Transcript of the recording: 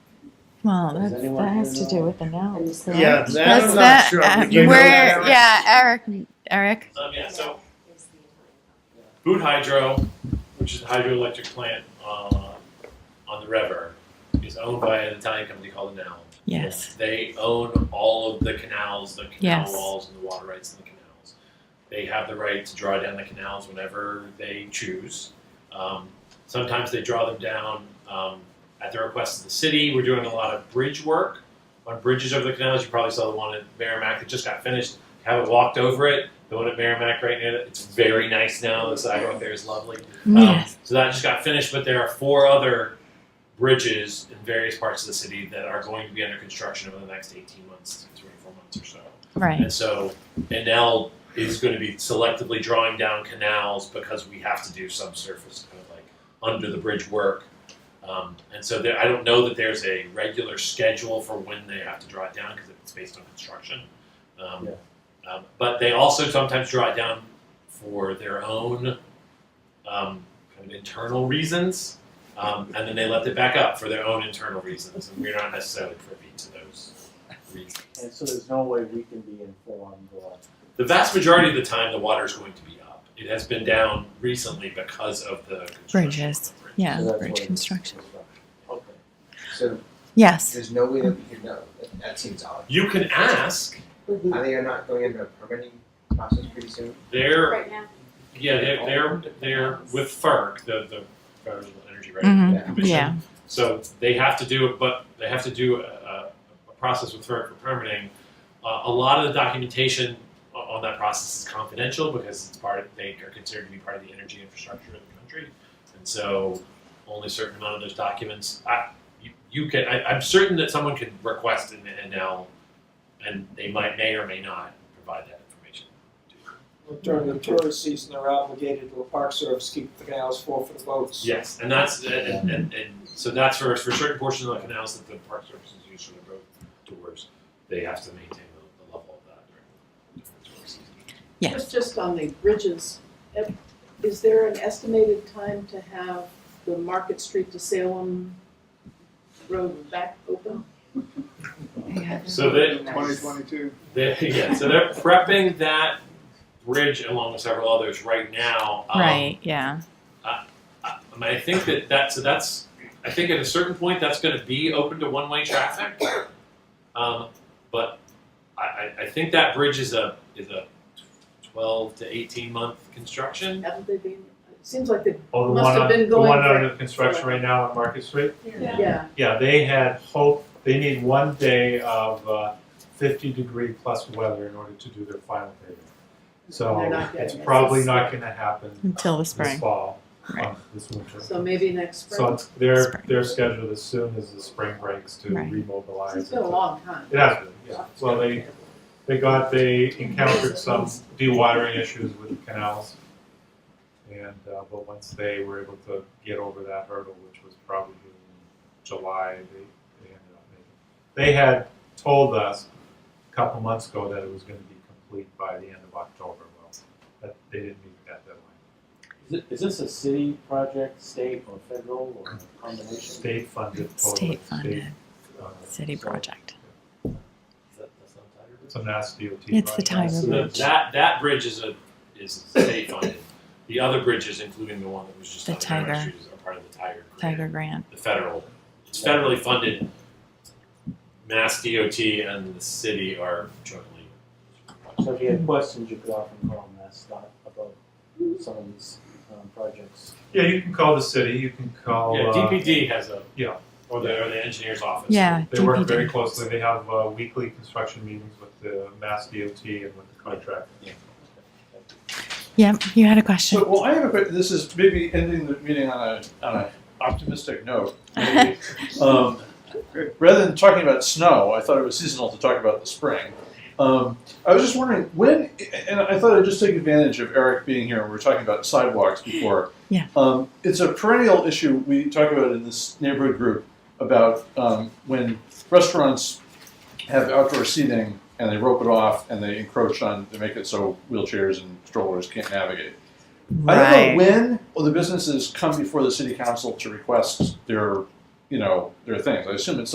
Well, Does that's, anyone that has to here do know? with the Oh, nouns. right? Yeah, that That's I'm not sure. that. Do you uh, know where? that, Eric? yeah, Eric. Eric. Um, yeah, so Boot Hydro, which is a hydroelectric plant uh, on the river, is owned by an Italian company called Enel. Yes. They own all of the canals, the canal Yes. walls, and the water rights in the canals. They have the right to draw down the canals whenever they choose. Um, sometimes they draw them down um, at the request of the city. We're doing a lot of bridge work on bridges over the canals. You probably saw the one at Merrimack that just got finished. Haven't walked over it. The one at Merrimack right now, it's very nice now. The sidewalk there is lovely. Um, Yes. So that just got finished, but there are four other bridges in various parts of the city that are going to be under construction over the next 18 months to 24 months or so. Right. And so Enel is going to be selectively drawing down canals because we have to do subsurface kind of like under the bridge work. Um, and so there, I don't know that there's a regular schedule for when they have to draw it down because it's based on construction. Um, um, but they also sometimes draw it down for their own um, kind of internal reasons, um, and then they lift it back up for their own internal reasons, and we're not necessarily privy to those reasons. And so there's no way we can be informed or. The vast majority of the time, the water is going to be up. It has been down recently because of the construction of Bridges. the bridge. Yeah. so that's what Bridge it- construction. Okay. So Yes. there's no way that we can know. That, that seems odd. You can ask. Are they not going into a permitting process pretty soon? They're Right now, yeah they're they're, they're with FERC, the the Federal Energy Regulatory hmm Yeah. Commission. Yeah. So they have to do it, but they have to do a, a, a process with FERC for permitting. Uh, a lot of the documentation o- on that process is confidential because it's part of, they are considered to be part of the energy infrastructure of the country, and so only a certain amount of those documents. I, you, you can. I, I'm certain that someone can request an NL, and they might may or may not provide that information. to you. During the tourist season, they're obligated to a park service, keep the canals full for the boats. Yes, and that's and, and, and so that's for for certain portions of the canals that the park services use for their boat tours, they have to maintain the, the level of that during the tour season. Yes. Just on the bridges, if- is there an estimated time to have the Market Street to Salem road back open? Yeah. So they, Twenty twenty-two. they yeah, so they're prepping that bridge along with several others right now. Um, Right. Yeah. I, I mean, I think that that so that's I think at a certain point that's going to be open to one way traffic. Um, but I, I, I think that bridge is a is a twelve to eighteen month construction. Haven't they been, it seems like they, Oh, the Must one, have on- been the going one for- under construction right now on Market Street? Yeah. yeah, Yeah, they had hope, they need one day of uh, fifty degree plus weather in order to do their final paving. They're So not it's getting it. probably not gonna happen Until the this spring. fall, Right. um, this winter. so maybe next So spring. it's- they're, Spring. they're scheduled as soon as the spring breaks to Right. remobilize. It's been a it. long time. It has been, yeah. Well, they, they got, they encountered some dewatering issues with the canals. And, uh, but once they were able to get over that hurdle, which was probably in July, they, they ended up making. They had told us a couple months ago that it was gonna be complete by the end of October. Well, that, they didn't meet that deadline. Is it- Is this a city project, state or federal or a combination? State funded, totally State state. funded uh, city project. Is that- that's not Tiger Woods? It's a mass DOT. It's the project. Tiger So that, that that bridge is a is state funded. The other bridges, including the one that was just The on Merrimack Tiger. Street, is- are part of the Tiger. grant. Tiger Grant. The federal, it's federally funded. Mass DOT and the city are jointly. So if you had questions, you could often call and ask Scott about some of these um, projects. Yeah, you can call the city, you can Oh, call, yeah, uh, DPD has a yeah. or the or the engineer's office. Yeah. They work DPD. very closely. They have uh, weekly construction meetings with the Mass DOT and with the contractor. Yep. You had a question. So, well, I have a, que- this is maybe ending the meeting on a, on a optimistic note. maybe. Um, Rather than talking about snow, I thought it was seasonal to talk about the spring. Um, I was just wondering when, and I thought I'd just take advantage of Eric being here, and we were talking about sidewalks before. Yeah. Um, it's a perennial issue we talk about in this neighborhood group about um, when restaurants have outdoor seating and they rope it off and they encroach on, they make it so wheelchairs and strollers can't navigate. I don't know Right. when well, the businesses come before the city council to request their, you know, their things. I assume it's